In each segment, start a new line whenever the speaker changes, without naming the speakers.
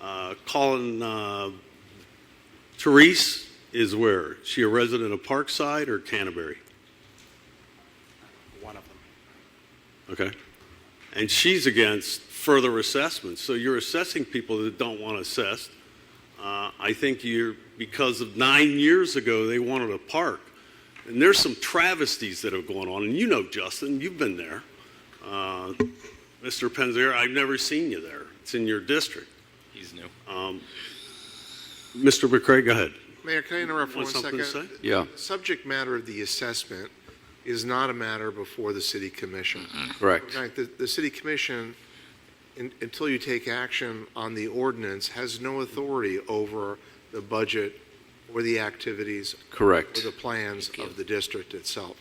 Uh, Colin uh, Therese is where? Is She a resident of Parkside or Canterbury?
one of them.
Okay. And she's against further assessments. So you're assessing people that don't want assessed. Uh, I think you're, because of nine years ago, they wanted a park. And there's some travesties that have gone on. And you know, Justin, you've been there. Uh, Mr. Penzier, I've never seen you there. It's in your district.
He's new.
Mr. Um, McCray, go ahead.
Mayor, can I interrupt for one
Want something
second?
to say?
Yeah,
Subject matter of the assessment is not a matter before the city commission.
Mm-hmm. correct.
Right, the, the city commission, in- until you take action on the ordinance, has no authority over the budget or the activities or
Correct.
the plans of the district itself.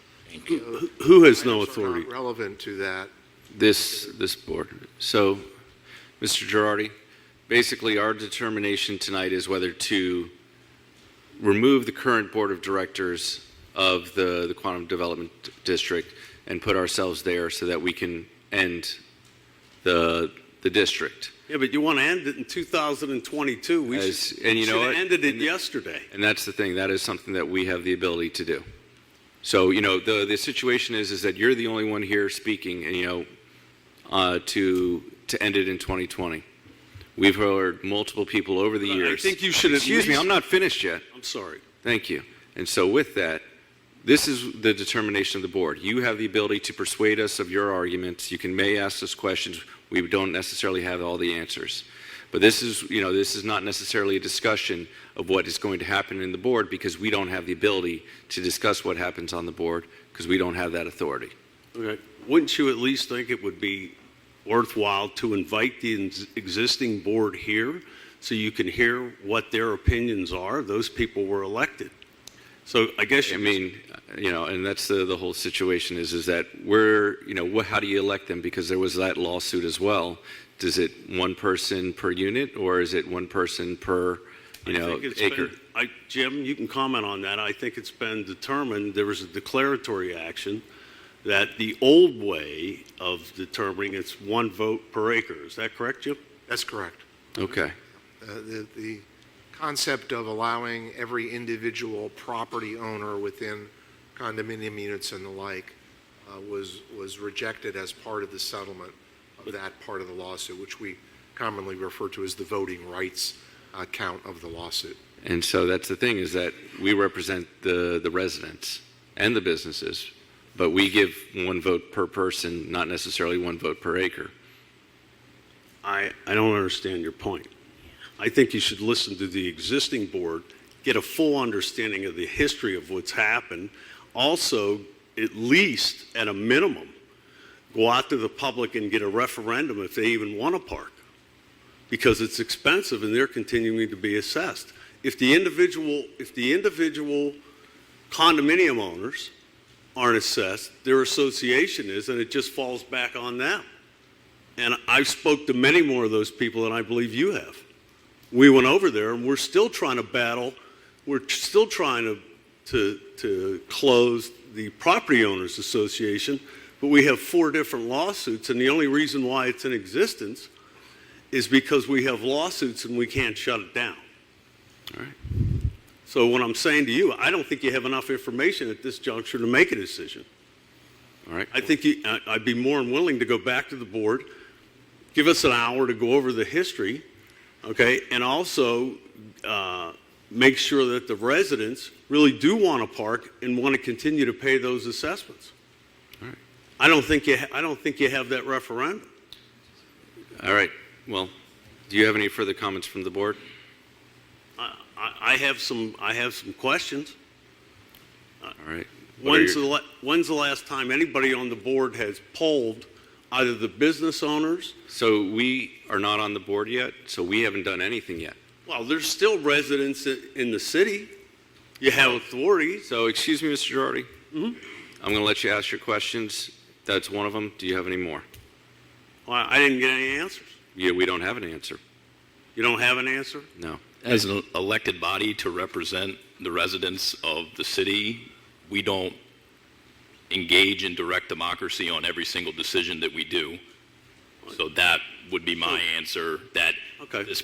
Who- Who has no
Items are not
authority?
Relevant to that.
This, this board. So, Mr. Girardi, basically our determination tonight is whether to remove the current Board of Directors of the, the Quantum Development District and put ourselves there so that we can end the, the district.
Yeah, but you want to end it in 2022. We
As-
should,
and you know
should
what?
have ended it
And-
yesterday.
And that's the thing. That is something that we have the ability to do. So you know, the the situation is is that you're the only one here speaking, and you know, uh, to to end it in 2020. We've heard multiple people over the
I
years.
think you should at
Excuse me,
least-
I'm not finished yet.
I'm sorry.
Thank you. And so with that, this is the determination of the board. You have the ability to persuade us of your arguments. You can may ask us questions. We don't necessarily have all the answers. But this is, you know, this is not necessarily a discussion of what is going to happen in the board because we don't have the ability to discuss what happens on the board because we don't have that authority.
Okay. Wouldn't you at least think it would be worthwhile to invite the ex- existing board here so you can hear what their opinions are? Those people were elected. So I guess you
I mean, you know, and that's the, the whole situation is, is that we're, you know, wh- how do you elect them? Because there was that lawsuit as well. Does it one person per unit or is it one person per, you
I
know,
think it's
acre?
been- I, Jim, you can comment on that. I think it's been determined, there was a declaratory action, that the old way of determining it's one vote per acre. Is that correct, Jim?
That's correct.
Okay,
Uh, the, the concept of allowing every individual property owner within condominium units and the like uh, was, was rejected as part of the settlement of that part of the lawsuit, which we commonly refer to as the voting rights uh, count of the lawsuit.
and so that's the thing is that we represent the, the residents and the businesses, but we give one vote per person, not necessarily one vote per acre.
I, I don't understand your point. I think you should listen to the existing board, get a full understanding of the history of what's happened. Also, at least at a minimum, go out to the public and get a referendum if they even want a park because it's expensive and they're continuing to be assessed. If the individual, if the individual condominium owners aren't assessed, their association is, and it just falls back on them. And I've spoke to many more of those people than I believe you have. We went over there and we're still trying to battle, we're t- still trying to, to, to close the Property Owners Association, but we have four different lawsuits and the only reason why it's in existence is because we have lawsuits and we can't shut it down.
All right.
So what I'm saying to you, I don't think you have enough information at this juncture to make a decision.
All right.
I think you, I- I'd be more than willing to go back to the board, give us an hour to go over the history, okay? And also, uh, make sure that the residents really do want a park and want to continue to pay those assessments.
right.
I don't think you, ha- I don't think you have that referendum.
All right. Well, do you have any further comments from the board?
I, I I have some, I have some questions.
All right. What are
When's the,
your-
la- when's the last time anybody on the board has polled either the business owners
So we are not on the board yet, so we haven't done anything yet.
Well, there's still residents i- in the city. You have authorities.
So, excuse me, Mr. Girardi. I'm going to let you ask your questions. That's one of them. Do you have any more?
Well, I didn't get any answers.
Yeah, we don't have an answer.
You don't have an answer?
No.
As an elected body to represent the residents of the city, we don't engage in direct democracy on every single decision that we do. So that would be my answer, that
Okay.
this